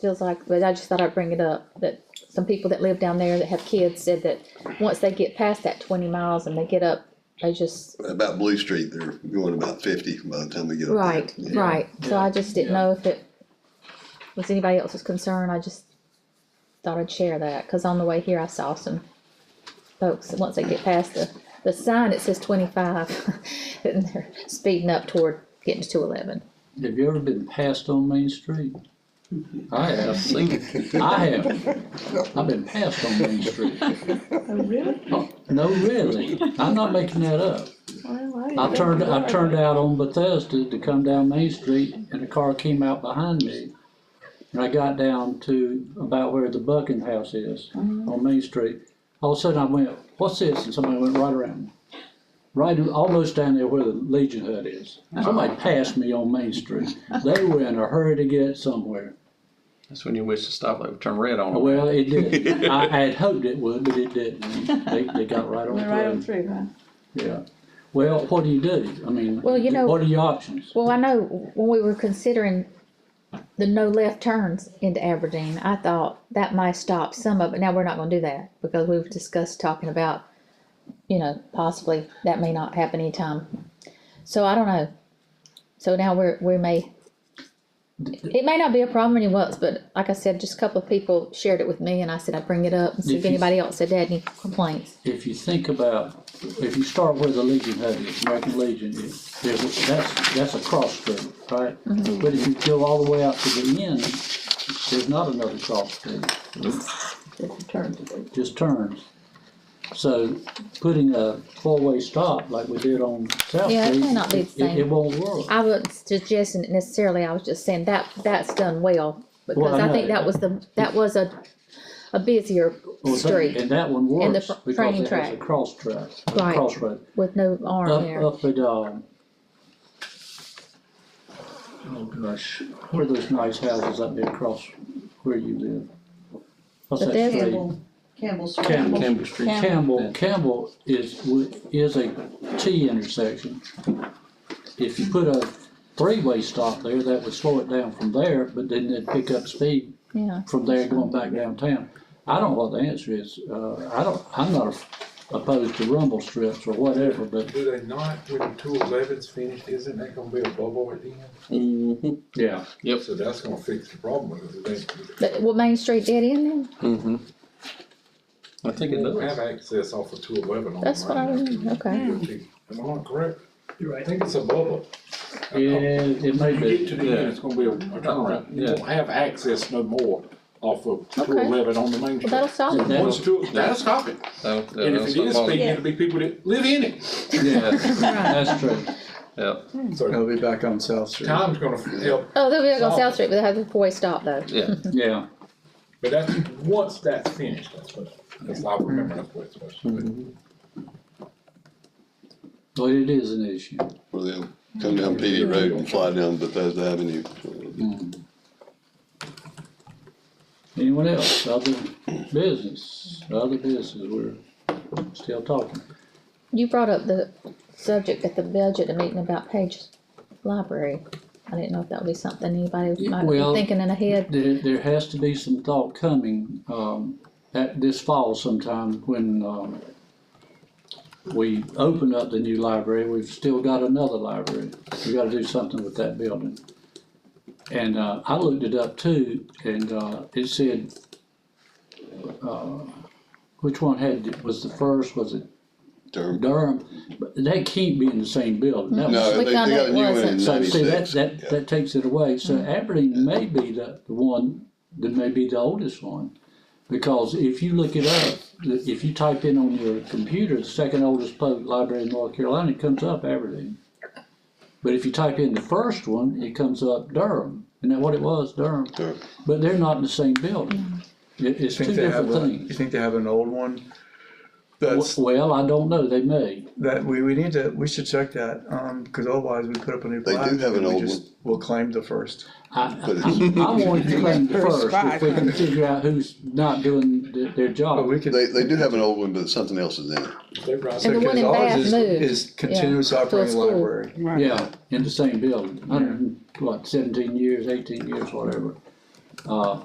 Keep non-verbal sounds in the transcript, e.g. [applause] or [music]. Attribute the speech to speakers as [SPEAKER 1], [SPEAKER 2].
[SPEAKER 1] feels like, but I just thought I'd bring it up, that some people that live down there that have kids said that once they get past that twenty miles and they get up, they just,
[SPEAKER 2] About Blue Street, they're going about fifty by the time we get up there.
[SPEAKER 1] right,
[SPEAKER 2] Yeah.
[SPEAKER 1] right, so I just didn't know if it was anybody else's concern, I just thought I'd share that, cause on the way here, I saw some folks, once they get past the, the sign, it says twenty-five, [laughs] and they're speeding up toward getting to two eleven.
[SPEAKER 3] Have you ever been passed on Main Street? I have, see, I have. I've been passed on Main Street.
[SPEAKER 4] Oh, really?
[SPEAKER 3] No, really, I'm not making that up.
[SPEAKER 4] Well,
[SPEAKER 3] I turned, I turned out on Bethesda to come down Main Street and a car came out behind me. And I got down to about where the Bucking House is
[SPEAKER 1] Mm-hmm.
[SPEAKER 3] on Main Street. All of a sudden I went, what's this? And somebody went right around me. Right, almost down there where the Legion Hut is.
[SPEAKER 1] Oh.
[SPEAKER 3] Somebody passed me on Main Street. They were in a hurry to get somewhere.
[SPEAKER 5] That's when you wish the stoplight would turn red on.
[SPEAKER 3] Well,
[SPEAKER 1] [laughs]
[SPEAKER 3] it did. I, I had hoped it would, but it didn't. They, they got right
[SPEAKER 4] Went right on
[SPEAKER 3] on through.
[SPEAKER 4] through, huh?
[SPEAKER 3] Yeah. Well, what do you do? I mean,
[SPEAKER 1] Well, you know-
[SPEAKER 3] what are your options?
[SPEAKER 1] Well, I know when we were considering the no left turns into Aberdeen, I thought that might stop some of it. Now, we're not gonna do that because we've discussed talking about, you know, possibly that may not happen anytime. So I don't know. So now we're, we may, it may not be a problem anywhere else, but like I said, just a couple of people shared it with me and I said I'd bring it up and see if
[SPEAKER 3] If you-
[SPEAKER 1] anybody else had had any complaints.
[SPEAKER 3] if you think about, if you start where the Legion Hut is, American Legion is, there's, a- that's, that's a cross street, right?
[SPEAKER 1] Mm-hmm.
[SPEAKER 3] But if you go all the way out to the end, there's not another cross street,
[SPEAKER 4] Just turned to do.
[SPEAKER 3] just turns. So putting a four-way stop like we did on South Street.
[SPEAKER 1] Yeah, it may not be the
[SPEAKER 3] it-
[SPEAKER 1] same.
[SPEAKER 3] It won't work.
[SPEAKER 1] I wasn't suggesting it necessarily, I was just saying that, that's done well, because
[SPEAKER 3] Well,
[SPEAKER 1] I
[SPEAKER 3] I
[SPEAKER 1] think
[SPEAKER 3] know.
[SPEAKER 1] that was the, that was a, a busier
[SPEAKER 3] Well, that-
[SPEAKER 1] street
[SPEAKER 3] And that one
[SPEAKER 1] And the
[SPEAKER 3] works
[SPEAKER 1] fr-
[SPEAKER 3] because
[SPEAKER 1] training
[SPEAKER 3] it has a
[SPEAKER 1] track.
[SPEAKER 3] cross track, a
[SPEAKER 1] Right.
[SPEAKER 3] crossroad.
[SPEAKER 1] with no arm
[SPEAKER 3] Up,
[SPEAKER 1] there.
[SPEAKER 3] up at, um, oh gosh, where are those nice houses up there across where you live? What's
[SPEAKER 1] But
[SPEAKER 3] that
[SPEAKER 1] there's-
[SPEAKER 3] street?
[SPEAKER 6] Campbell, Campbell Street.
[SPEAKER 3] Campbell.
[SPEAKER 5] Campbell Street.
[SPEAKER 3] Campbell, Campbell is, w- is a T intersection. If you put a three-way stop there, that would slow it down from there, but then it'd pick up speed
[SPEAKER 1] Yeah,
[SPEAKER 3] from there going back downtown. I don't know what the answer is, uh, I don't, I'm not opposed to rumble strips or whatever, but
[SPEAKER 7] Do they not, when two eleven's finished, isn't that gonna be a bubble at the end?
[SPEAKER 5] Mm-hmm.
[SPEAKER 3] Yeah.
[SPEAKER 5] Yep.
[SPEAKER 7] So that's gonna fix the problem, because they,
[SPEAKER 1] but, well, Main Street dead end then,
[SPEAKER 5] Mm-hmm. I think it
[SPEAKER 7] they don't have
[SPEAKER 5] does.
[SPEAKER 7] access off of two eleven on.
[SPEAKER 1] that's what I remember, okay.
[SPEAKER 7] Am I not correct?
[SPEAKER 8] You're
[SPEAKER 7] I
[SPEAKER 8] right.
[SPEAKER 7] think it's a bubble.
[SPEAKER 3] it may
[SPEAKER 7] You get to the
[SPEAKER 5] Yeah.
[SPEAKER 7] end, it's gonna be a a turnaround, you
[SPEAKER 5] Yeah.
[SPEAKER 7] won't have access no more off of
[SPEAKER 1] Okay.
[SPEAKER 7] two eleven on the main
[SPEAKER 1] Well,
[SPEAKER 7] street.
[SPEAKER 1] that'll solve it.
[SPEAKER 7] Once two, that'll stop it,
[SPEAKER 5] So, Oh, yeah,
[SPEAKER 7] and if
[SPEAKER 5] that's
[SPEAKER 7] it
[SPEAKER 5] not
[SPEAKER 7] is
[SPEAKER 5] possible.
[SPEAKER 7] speeding, it'll be people that live in it,
[SPEAKER 5] Yeah,
[SPEAKER 1] Right.
[SPEAKER 3] That's true.
[SPEAKER 5] [laughs] yeah,
[SPEAKER 7] so
[SPEAKER 8] I'll be back on South Street.
[SPEAKER 7] time's gonna help
[SPEAKER 1] Oh, they'll be on
[SPEAKER 7] Solve
[SPEAKER 1] South
[SPEAKER 7] it.
[SPEAKER 1] Street, but they have a four-way stop though.
[SPEAKER 5] yeah.
[SPEAKER 3] Yeah,
[SPEAKER 7] But that's, once that's finished, that's what, that's what I remember, that's what it's supposed to be.
[SPEAKER 3] but it is an issue.
[SPEAKER 2] Where they'll come down Petey Road and fly down Bethesda Avenue.
[SPEAKER 3] Anyone else, other business, other business, we're still talking.
[SPEAKER 1] You brought up the subject at the budget meeting about Page Library, I didn't know if that would be something anybody might be
[SPEAKER 3] Well-
[SPEAKER 1] thinking in ahead,
[SPEAKER 3] There, there has to be some thought coming, um, at this fall sometime when, um, we open up the new library, we've still got another library, we gotta do something with that building. And, uh, I looked it up too, and, uh, it said, uh, which one had, was the first, was it
[SPEAKER 2] Term.
[SPEAKER 3] Durham, but they can't be in the same building. That was-
[SPEAKER 2] No,
[SPEAKER 1] We
[SPEAKER 2] they, they
[SPEAKER 1] found
[SPEAKER 2] got
[SPEAKER 1] out
[SPEAKER 2] a
[SPEAKER 1] it
[SPEAKER 2] new one in
[SPEAKER 1] wasn't.
[SPEAKER 3] So see, that,
[SPEAKER 2] ninety-six.
[SPEAKER 3] that, that takes it away. So
[SPEAKER 8] Mm.
[SPEAKER 3] Aberdeen may be the, the one that may be the oldest one. Because if you look it up, if you type in on your computer, the second oldest public library in North Carolina, it comes up Aberdeen. But if you type in the first one, it comes up Durham. Isn't that what it was, Durham?
[SPEAKER 2] Durham.
[SPEAKER 3] But they're not in the same building. It, it's
[SPEAKER 8] You
[SPEAKER 3] two
[SPEAKER 8] Mm. think they
[SPEAKER 3] different
[SPEAKER 8] have a- You
[SPEAKER 3] things.
[SPEAKER 8] think they have an old one? That's,
[SPEAKER 3] Well, I don't know. They may.
[SPEAKER 8] that, we, we need to, we should check that, um, cause otherwise we put up a new
[SPEAKER 2] They do
[SPEAKER 8] plaque.
[SPEAKER 2] have an
[SPEAKER 8] and we
[SPEAKER 2] old
[SPEAKER 8] just- We'll claim the first.
[SPEAKER 1] Oh.
[SPEAKER 3] I,
[SPEAKER 2] [laughs] But it's,
[SPEAKER 3] I wanted
[SPEAKER 2] [laughs]
[SPEAKER 3] to claim the
[SPEAKER 6] First
[SPEAKER 3] first, if we can figure out who's not doing th- their
[SPEAKER 8] But
[SPEAKER 3] job.
[SPEAKER 8] we could.
[SPEAKER 2] they, they do have an old one, but something else is in it.
[SPEAKER 7] They rise
[SPEAKER 8] so
[SPEAKER 1] And the one
[SPEAKER 8] 'cause
[SPEAKER 1] in
[SPEAKER 8] ours
[SPEAKER 1] Bath
[SPEAKER 8] is-
[SPEAKER 1] moved,
[SPEAKER 8] Is continuous
[SPEAKER 1] to a
[SPEAKER 8] operating
[SPEAKER 1] school.
[SPEAKER 8] library.
[SPEAKER 3] Yeah, in the same building, hundred, and- what, seventeen years, eighteen years, whatever. Uh,